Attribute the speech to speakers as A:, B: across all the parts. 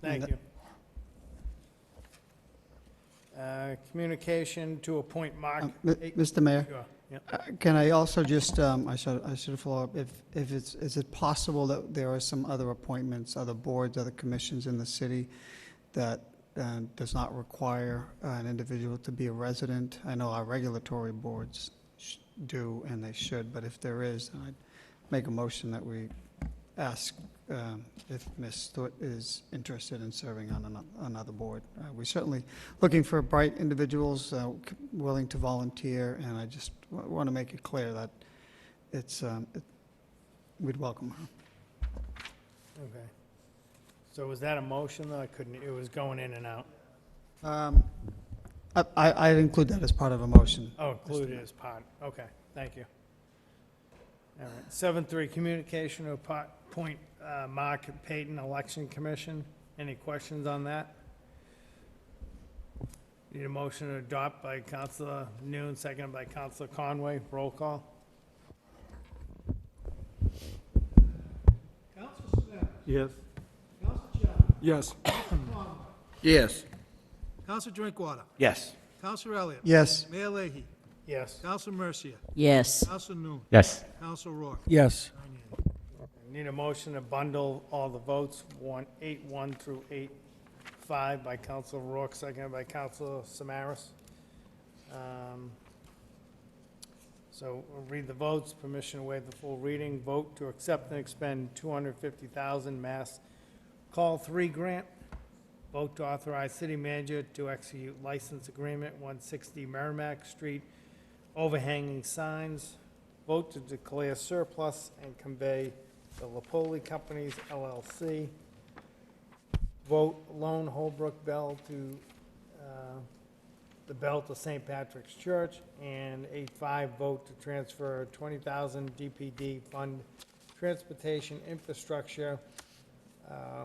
A: Thank you. Uh, Communication to appoint Mark.
B: Um, Mi-
A: Hey,
B: Mr. Mayor,
A: sure, yeah.
B: uh, can I also just, um, I should, I should follow up, if, if it's, is it possible that there are some other appointments, other boards, other commissions in the city that uh, does not require uh, an individual to be a resident? I know our regulatory boards sh- do, and they should, but if there is, then I'd make a motion that we ask um, if Ms. Stewart is interested in serving on ano- another board. Uh, We certainly looking for bright individuals uh, c- willing to volunteer, and I just want to make it clear that it's, um, it- we'd welcome her.
A: Okay. So was that a motion, though? I couldn't, it was going in and out.
B: Um, I- I- I'd include that as part of a motion.
A: Oh, included as part, okay, thank you. All right, seven three, communication to appo- appoint uh, Mark Payton, Election Commission. Any questions on that? Need a motion to adopt by Counselor Noon, seconded by Counselor Conway, roll call?
C: Yes. Yes. Yes.
D: Counselor Drinkwater.
C: Yes.
D: Counselor Elliott.
B: Yes,
D: Mayor Leahy.
A: Yes.
D: Counselor Mercia.
E: Yes,
D: Counselor Noon.
C: Yes.
D: Counselor Rourke.
C: Yes.
A: Need a motion to bundle all the votes, one, eight, one through eight, five by Council Rourke, seconded by Council Samaras. Um, So we'll read the votes, permission to waive the full reading, vote to accept and expend two hundred fifty thousand mass call three grant, vote to authorize city manager to execute license agreement one sixty Merrimack Street overhanging signs, vote to declare surplus and convey the Lapoli Companies LLC. Vote loan Holbrook Bell to, uh, the bell to St. Patrick's Church. And eight five, vote to transfer twenty thousand DPD fund transportation infrastructure, uh,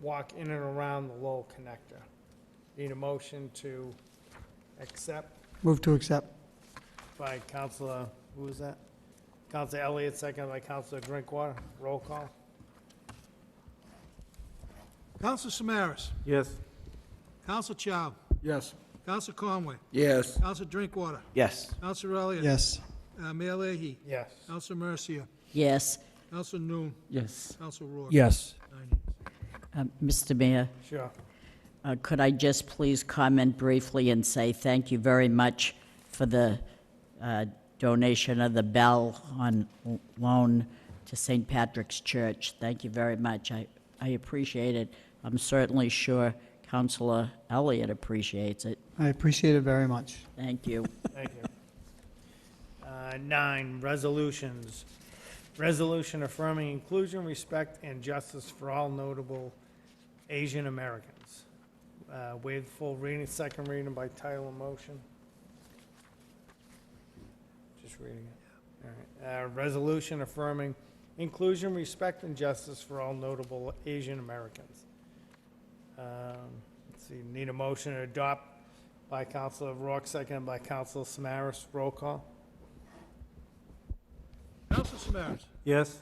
A: walk in and around the Lowell Connector. Need a motion to accept
B: move to accept.
A: by Counselor, who was that? Counselor Elliott, second by Counselor Drinkwater. Roll call?
D: Counselor Samaras.
C: Yes.
D: Counselor Chow.
C: Yes.
D: Counselor Conway.
C: Yes.
D: Counselor Drinkwater.
C: Yes.
D: Counselor Elliott.
B: Yes,
D: Uh, Mayor Leahy.
A: Yes.
D: Counselor Mercia.
E: yes.
D: Counselor Noon.
C: Yes.
D: Counselor Rourke.
C: Yes.
D: Nine yeas.
E: Uh, Mr. Mayor,
A: Sure.
E: uh, could I just please comment briefly and say thank you very much for the uh, donation of the bell on l- loan to St. Patrick's Church? Thank you very much. I, I appreciate it. I'm certainly sure Counselor Elliott appreciates it.
B: I appreciate it very much.
E: Thank you.
A: Thank you. Uh, Nine, resolutions. Resolution affirming inclusion, respect, and justice for all notable Asian Americans. Uh, Waive full reading, second reading by title and motion. Just reading it. All right. Uh, Resolution affirming inclusion, respect, and justice for all notable Asian Americans. Um, Let's see, need a motion to adopt by Counselor Rourke, seconded by Counselor Samaras. Roll call?
D: Counselor Samaras.
C: Yes.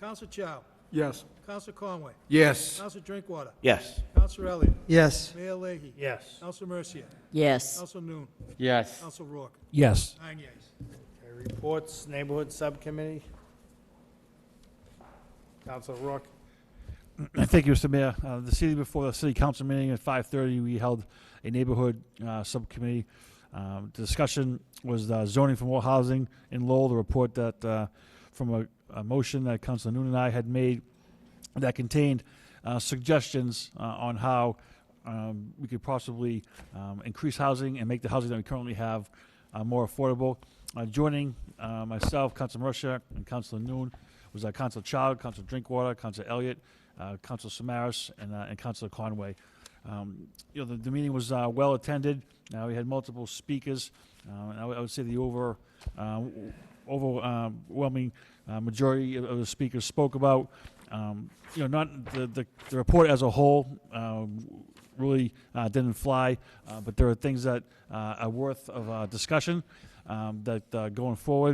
D: Counselor Chow.
C: Yes.
D: Counselor Conway.
C: Yes.
D: Counselor Drinkwater.
C: Yes.
D: Counselor Elliott.
B: Yes,
D: Mayor Leahy.
A: Yes.
D: Counselor Mercia.
E: Yes,
D: Counselor Noon.
C: Yes.
D: Counselor Rourke.
C: Yes.
D: Nine yeas.
A: Okay, reports, Neighborhood Subcommittee. Counselor Rourke?
F: Uh, Thank you, Mr. Mayor. Uh, This evening before the city council meeting at 5:30, we held a neighborhood uh, subcommittee. Um, The Discussion was uh, zoning for more housing in Lowell, the report that, uh, from a- a motion that Councilor Noon and I had made that contained uh, suggestions uh, on how um, we could possibly um, increase housing and make the housing that we currently have uh, more affordable. Uh, Joining uh, myself, Council Mercer, and Council Noon was uh, Council Child, Council Drinkwater, Council Elliott, uh, Council Samaras, and, uh, and Council Conway. Um, You know, the, the meeting was uh, well-attended. Uh, We had multiple speakers. Uh, And I would- I would say the over, um, overwhelming uh, majority of- of the speakers spoke about, um, you know, not, the, the, the report as a whole um, really uh, didn't fly, uh, but there are things that uh, are worth of uh, discussion um, that uh, going forward,